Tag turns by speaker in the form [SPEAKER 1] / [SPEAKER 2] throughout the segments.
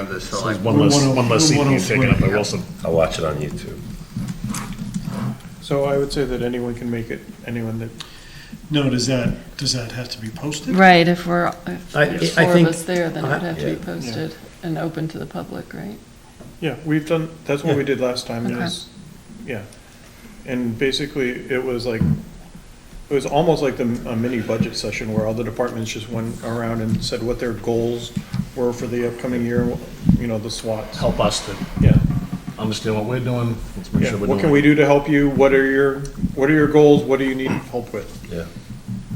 [SPEAKER 1] of the select.
[SPEAKER 2] One less, one less seat being taken up by
[SPEAKER 3] 103.
[SPEAKER 2] Wilson.
[SPEAKER 4] I'll watch it on YouTube.
[SPEAKER 5] So I would say that anyone can make it, anyone that,
[SPEAKER 3] No, does that, does that have to be posted?
[SPEAKER 6] Right, if we're, if
[SPEAKER 4] I-
[SPEAKER 6] there's
[SPEAKER 4] I
[SPEAKER 6] four of
[SPEAKER 4] think-
[SPEAKER 6] us there, then it would have to be
[SPEAKER 4] Yeah.
[SPEAKER 6] posted and open to the public, right?
[SPEAKER 5] yeah, we've done, that's what we did last time,
[SPEAKER 6] Okay.
[SPEAKER 5] is, yeah. And basically, it was like, it was almost like the, a mini budget session where all the departments just went around and said what their goals were for the upcoming year, you know, the SWATs.
[SPEAKER 2] Help us to
[SPEAKER 5] Yeah,
[SPEAKER 2] understand what we're doing. Let's make
[SPEAKER 5] yeah,
[SPEAKER 2] sure we're
[SPEAKER 5] what can we
[SPEAKER 2] doing. it.
[SPEAKER 5] do to help you, what are your, what are your goals, what do you need help with,
[SPEAKER 4] Yeah.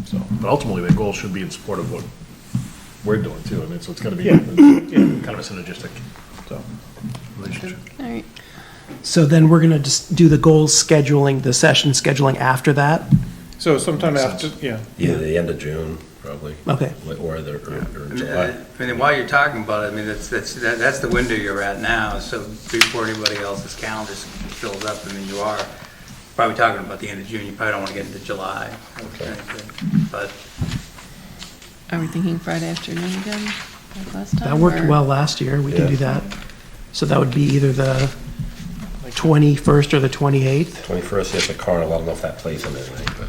[SPEAKER 5] so.
[SPEAKER 2] But ultimately, the goal should be in support of what we're doing too. I mean, so it's gotta be
[SPEAKER 5] Yeah.
[SPEAKER 2] kind of a synergistic
[SPEAKER 5] So,
[SPEAKER 2] relationship.
[SPEAKER 6] All right,
[SPEAKER 7] So then we're going to just do the goals scheduling, the session scheduling after that?
[SPEAKER 5] so sometime
[SPEAKER 2] Makes
[SPEAKER 5] after, yeah,
[SPEAKER 4] Either the end of June, probably.
[SPEAKER 7] Okay.
[SPEAKER 4] Or the, or- or
[SPEAKER 1] I mean,
[SPEAKER 4] July.
[SPEAKER 1] I- I mean, while you're talking about it, I mean, that's, that's, that- that's the window you're at now, so before anybody else's calendar fills up, I mean, you are probably talking about the end of June, you probably don't want to get into July. I would
[SPEAKER 4] Okay.
[SPEAKER 1] think, But
[SPEAKER 6] are we thinking Friday afternoon again, like last time?
[SPEAKER 7] That worked
[SPEAKER 6] or-
[SPEAKER 7] well last year, we can do
[SPEAKER 4] Yeah.
[SPEAKER 7] that. So that would be either the 21st or the 28th?
[SPEAKER 4] 21st is the carnival. I don't know if that plays in anything, but.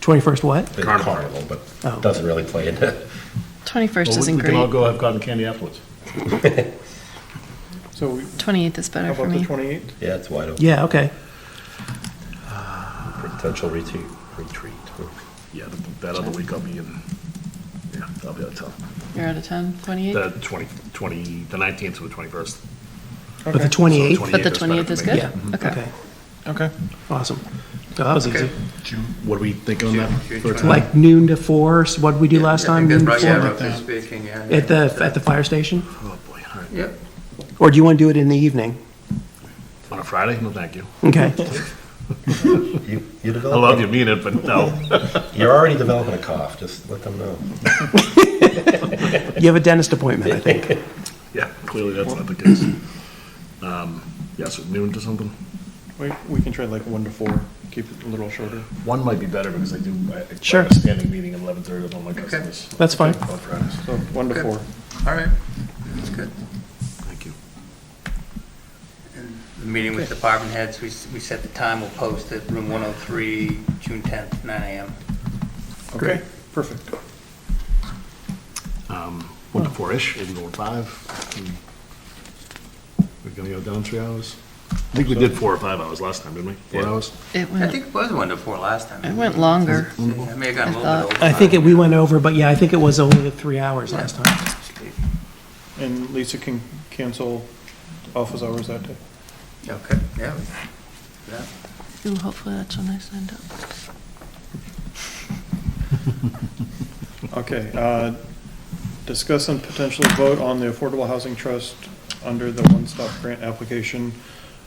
[SPEAKER 7] 21st what?
[SPEAKER 4] the
[SPEAKER 2] Carnival.
[SPEAKER 4] Carnival,
[SPEAKER 7] Oh.
[SPEAKER 4] but doesn't really play into it.
[SPEAKER 6] Twenty-first
[SPEAKER 2] Well, we-
[SPEAKER 6] isn't
[SPEAKER 2] We can all
[SPEAKER 6] great,
[SPEAKER 2] go have cotton candy afterwards.
[SPEAKER 5] so we,
[SPEAKER 6] twenty-eighth is
[SPEAKER 5] how
[SPEAKER 6] better for
[SPEAKER 5] about the
[SPEAKER 6] me.
[SPEAKER 5] twenty-eighth?
[SPEAKER 4] Yeah, it's wide open.
[SPEAKER 7] Yeah, okay.
[SPEAKER 4] Potential retreat, retreat.
[SPEAKER 2] Yeah, that- that other week I'll be in, yeah, I'll be out of town.
[SPEAKER 6] You're out of town,
[SPEAKER 2] The
[SPEAKER 6] twenty-eighth?
[SPEAKER 2] 20, 20, the 19th to the 21st.
[SPEAKER 7] But the
[SPEAKER 5] Okay.
[SPEAKER 7] 28th?
[SPEAKER 2] 20
[SPEAKER 6] But the
[SPEAKER 2] 28th
[SPEAKER 6] twenty-eighth
[SPEAKER 2] is
[SPEAKER 6] is
[SPEAKER 2] better
[SPEAKER 6] good?
[SPEAKER 7] Yeah,
[SPEAKER 6] Okay.
[SPEAKER 7] okay,
[SPEAKER 5] Okay.
[SPEAKER 7] awesome. So That was easy.
[SPEAKER 2] What do we think on
[SPEAKER 1] June-
[SPEAKER 2] that?
[SPEAKER 1] June
[SPEAKER 2] for a
[SPEAKER 1] 20th.
[SPEAKER 2] time?
[SPEAKER 7] Like noon to four. so what did we do
[SPEAKER 1] Yeah,
[SPEAKER 7] last
[SPEAKER 1] I think
[SPEAKER 7] time? Noon
[SPEAKER 1] that's
[SPEAKER 7] to
[SPEAKER 1] right,
[SPEAKER 7] four?
[SPEAKER 1] yeah, roughly speaking, yeah.
[SPEAKER 7] uh, At the, at the fire station?
[SPEAKER 2] Oh, boy, all right.
[SPEAKER 1] Yep.
[SPEAKER 7] Or do you want to do it in the evening?
[SPEAKER 2] On a Friday? No, thank you.
[SPEAKER 7] Okay,
[SPEAKER 4] You,
[SPEAKER 2] I
[SPEAKER 4] you
[SPEAKER 2] love
[SPEAKER 4] develop,
[SPEAKER 2] you, mean it, but no.
[SPEAKER 4] you're already developing a cough, just let them know.
[SPEAKER 7] you have a dentist appointment, I think.
[SPEAKER 2] Yeah, clearly that's not the case. Um, Yeah, so noon to something?
[SPEAKER 5] We, we can try like one to four, keep it a little shorter.
[SPEAKER 2] One might be better because I do, I I
[SPEAKER 7] Sure.
[SPEAKER 2] have a standing meeting at 11:30 with all my customers.
[SPEAKER 7] That's fine.
[SPEAKER 2] On Fridays,
[SPEAKER 5] So one to
[SPEAKER 1] Okay.
[SPEAKER 5] four.
[SPEAKER 1] All right, that's good.
[SPEAKER 2] thank you.
[SPEAKER 1] The meeting with department heads, we, s- we set the time, we'll post it, room 103, June 10th, 9 AM.
[SPEAKER 5] Okay, perfect.
[SPEAKER 2] Um, One to four-ish, maybe one to five. and We're gonna go down three hours? I think we did four or five hours last time, didn't we? Four
[SPEAKER 4] Yeah.
[SPEAKER 2] hours?
[SPEAKER 6] It
[SPEAKER 1] I
[SPEAKER 6] went,
[SPEAKER 1] think it was one to four last time.
[SPEAKER 6] it went longer.
[SPEAKER 1] I may have gotten a
[SPEAKER 6] I
[SPEAKER 1] little
[SPEAKER 6] thought-
[SPEAKER 1] bit over.
[SPEAKER 7] I think it- we went over, but yeah, I think it was only three hours last time.
[SPEAKER 5] And Lisa can cancel office hours that day.
[SPEAKER 1] Okay, yeah. Yeah.
[SPEAKER 6] Ooh, hopefully that's when I signed up.
[SPEAKER 5] Okay, uh, discuss and potentially vote on the Affordable Housing Trust under the One Stop Grant application.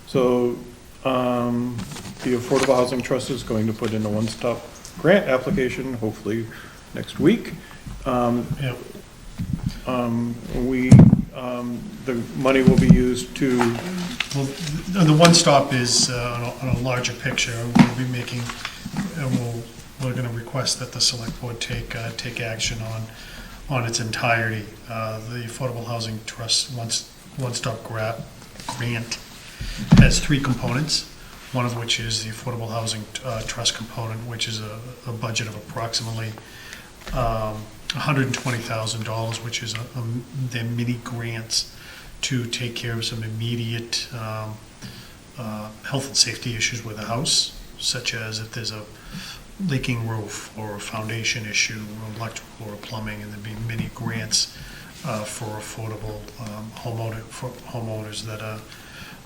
[SPEAKER 5] So, um, the Affordable Housing Trust is going to put in a One Stop Grant application, hopefully next week. Um,
[SPEAKER 3] Yeah.
[SPEAKER 5] um, we, um, the money will be used to
[SPEAKER 3] Well, the the one stop is uh, on a- on a larger picture. We'll be making, and we'll, we're going to request that the select board take, uh, take action on, on its entirety. Uh, The Affordable Housing Trust once, one-stop grant, grant has three components, one of which is the Affordable Housing uh, Trust component, which is a, a budget of approximately um, $120,000, which is a- um, their mini grants to take care of some immediate um, uh, health and safety issues with the house, such as if there's a leaking roof or a foundation issue, or electrical or plumbing, and there'd be many grants uh, for affordable um, homeowner, for homeowners that are,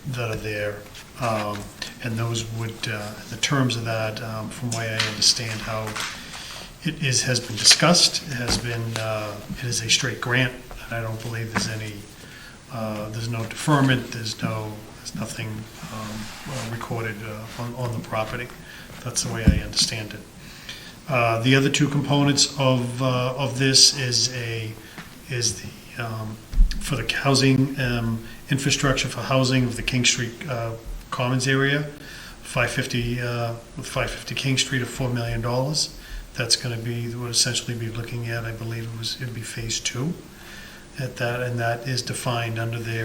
[SPEAKER 3] that are there. Um, And those would, uh, the terms of that, um, from what I understand, how it is, has been discussed, it has been, uh, it is a straight grant, and I don't believe there's any, uh, there's no deferment, there's no, there's nothing um, uh, recorded uh, on, on the property. That's the way I understand it. Uh, The other two components of, uh, of this is a, is the, um, for the housing, um, infrastructure for housing of the King Street uh, Commons area, 550, uh, with 550 King Street of $4 million. That's going to be, would essentially be looking at, I believe it was, it'd be phase two. at that, and that is defined under their